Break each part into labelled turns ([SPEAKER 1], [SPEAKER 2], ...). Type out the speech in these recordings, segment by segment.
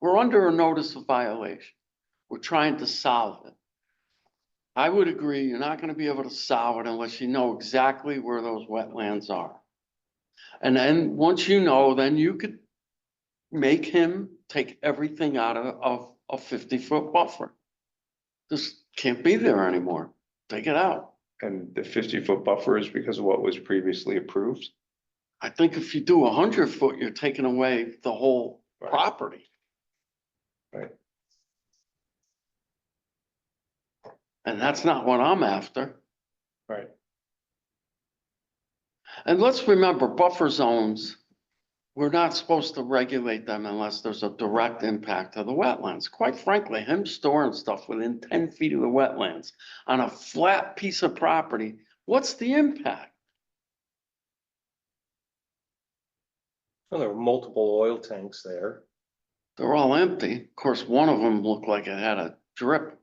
[SPEAKER 1] We're under a notice of violation. We're trying to solve it. I would agree, you're not gonna be able to solve it unless you know exactly where those wetlands are. And then, once you know, then you could make him take everything out of, of a fifty-foot buffer. This can't be there anymore. Take it out.
[SPEAKER 2] And the fifty foot buffer is because of what was previously approved?
[SPEAKER 1] I think if you do a hundred foot, you're taking away the whole
[SPEAKER 2] Right.
[SPEAKER 1] property.
[SPEAKER 2] Right.
[SPEAKER 1] And that's not what I'm after.
[SPEAKER 2] Right.
[SPEAKER 1] And let's remember buffer zones, we're not supposed to regulate them unless there's a direct impact to the wetlands. Quite frankly, him storing stuff within ten feet of the wetlands on a flat piece of property, what's the impact?
[SPEAKER 3] Well, there were multiple oil tanks there.
[SPEAKER 1] They're all empty. Of course, one of them looked like it had a drip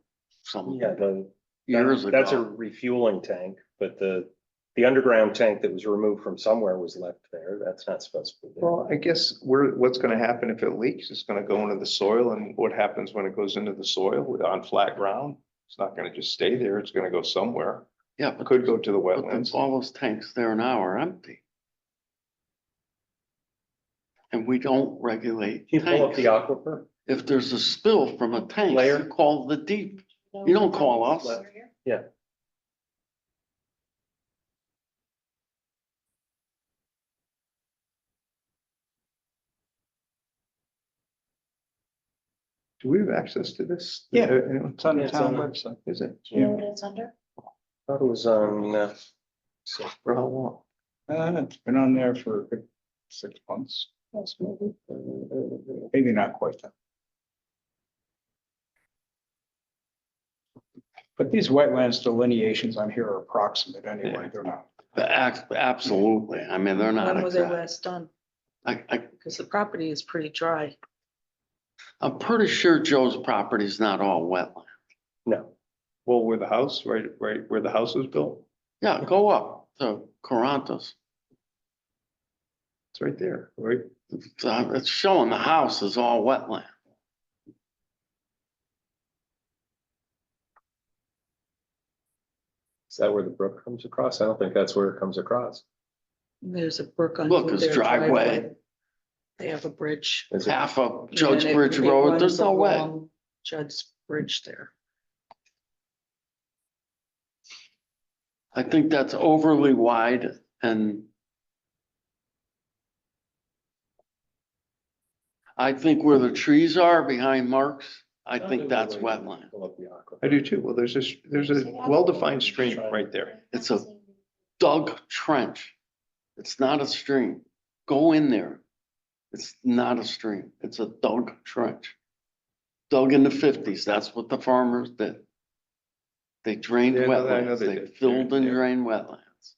[SPEAKER 1] some
[SPEAKER 3] Yeah, the.
[SPEAKER 1] years
[SPEAKER 3] that-
[SPEAKER 1] ago.
[SPEAKER 3] That's a refueling tank, but the, the underground tank that was removed from somewhere was left there. That's not supposed to be there.
[SPEAKER 2] Well, I guess we're, what's gonna happen if it leaks? It's gonna go into the soil and what happens when it goes into the soil on flat ground? It's not gonna just stay there. It's gonna go somewhere.
[SPEAKER 1] Yeah,
[SPEAKER 2] It
[SPEAKER 1] but
[SPEAKER 2] could go to the
[SPEAKER 1] but then
[SPEAKER 2] wetlands.
[SPEAKER 1] all those tanks there now are empty. And we don't regulate
[SPEAKER 3] Can you pull up the
[SPEAKER 1] tanks.
[SPEAKER 3] aquifer?
[SPEAKER 1] If there's a spill from a tank,
[SPEAKER 3] Layer?
[SPEAKER 1] you call the deep. You don't call us.
[SPEAKER 2] Do we have access to this? Uh,
[SPEAKER 4] Yeah.
[SPEAKER 2] Anyone?
[SPEAKER 4] It's on the
[SPEAKER 3] It's
[SPEAKER 4] town
[SPEAKER 3] on
[SPEAKER 4] website.
[SPEAKER 2] Is it?
[SPEAKER 4] Do you know what it's under?
[SPEAKER 3] Thought it was on, uh,
[SPEAKER 2] For how long?
[SPEAKER 4] Uh, it's been on there for a good six months. Yes, maybe. Maybe not quite that. But these wetlands delineations on here are approximate anyway, they're not.
[SPEAKER 1] Ac- Absolutely. I mean, they're not
[SPEAKER 5] When was it
[SPEAKER 1] exact.
[SPEAKER 5] last done?
[SPEAKER 1] I, I,
[SPEAKER 5] Because the property is pretty dry.
[SPEAKER 1] I'm pretty sure Joe's property's not all wetland.
[SPEAKER 3] no,
[SPEAKER 2] Well, where the house, right, right, where the house was built?
[SPEAKER 1] Yeah, go up to Carantas.
[SPEAKER 2] It's right there, right?
[SPEAKER 1] Uh, It's showing the house is all wetland.
[SPEAKER 3] is that where the brook comes across? I don't think that's where it comes across.
[SPEAKER 5] There's a brook on.
[SPEAKER 1] Look, his
[SPEAKER 5] their
[SPEAKER 1] driveway.
[SPEAKER 5] They have a bridge.
[SPEAKER 3] Is it?
[SPEAKER 1] Half of
[SPEAKER 5] and
[SPEAKER 1] Judge
[SPEAKER 5] it-
[SPEAKER 1] Bridge
[SPEAKER 5] it
[SPEAKER 1] Road,
[SPEAKER 5] runs
[SPEAKER 1] there's no way.
[SPEAKER 5] along Judd's Bridge there.
[SPEAKER 1] I think that's overly wide and I think where the trees are behind Mark's, I think that's wetland.
[SPEAKER 3] Pull up the aquifer.
[SPEAKER 2] I do too. Well, there's this, there's a well-defined stream right there.
[SPEAKER 1] It's a dug trench. It's not a stream. Go in there. It's not a stream. It's a dug trench. Dug in the fifties, that's what the farmers did. They drained
[SPEAKER 2] Yeah, I know that- I know
[SPEAKER 1] wetlands,
[SPEAKER 2] they
[SPEAKER 1] they
[SPEAKER 2] did.
[SPEAKER 1] filled and
[SPEAKER 2] Yeah.
[SPEAKER 1] drained wetlands.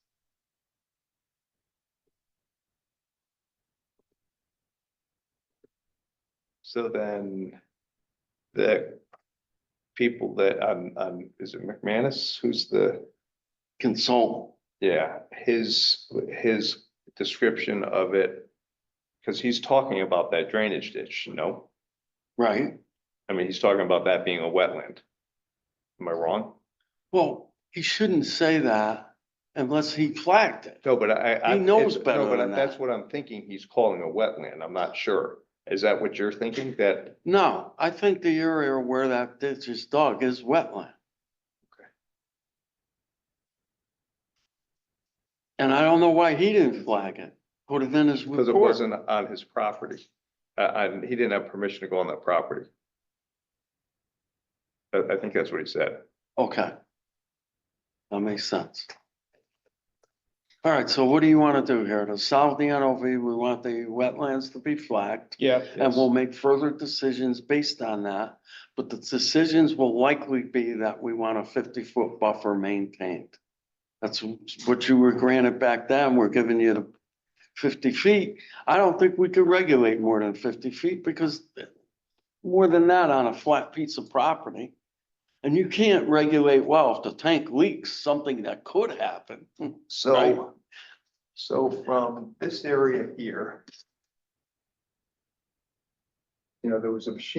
[SPEAKER 2] So then the people that, um, um, is it McManus? Who's the,
[SPEAKER 1] Consult
[SPEAKER 2] yeah, his, his description of it. Cause he's talking about that drainage ditch, you know?
[SPEAKER 1] Right,
[SPEAKER 2] I mean, he's talking about that being a wetland. Am I wrong?
[SPEAKER 1] well, he shouldn't say that unless he flagged it.
[SPEAKER 2] No, but I, I.
[SPEAKER 1] He knows
[SPEAKER 2] it's- no,
[SPEAKER 1] better
[SPEAKER 2] but
[SPEAKER 1] than
[SPEAKER 2] That's
[SPEAKER 1] that.
[SPEAKER 2] what I'm thinking. He's calling a wetland. I'm not sure. Is that what you're thinking? That,
[SPEAKER 1] No, I think the area where that ditch is dug is wetland. And I don't know why he didn't flag it, put it in his
[SPEAKER 2] because it
[SPEAKER 1] report.
[SPEAKER 2] wasn't on his property. Uh, and he didn't have permission to go on that property. I, I think that's what he said.
[SPEAKER 1] Okay. That makes sense. All right, so what do you want to do here? To solve the NOV, we want the wetlands to be flagged.
[SPEAKER 2] Yeah.
[SPEAKER 1] And we'll make further decisions based on that, but the decisions will likely be that we want a fifty-foot buffer maintained. That's what you were granted back then, we're giving you the fifty feet. I don't think we could regulate more than fifty feet because more than that on a flat piece of property. And you can't regulate, well, if the tank leaks, something that could happen. Right.
[SPEAKER 4] So,
[SPEAKER 2] so from this area here. You know, there was a machine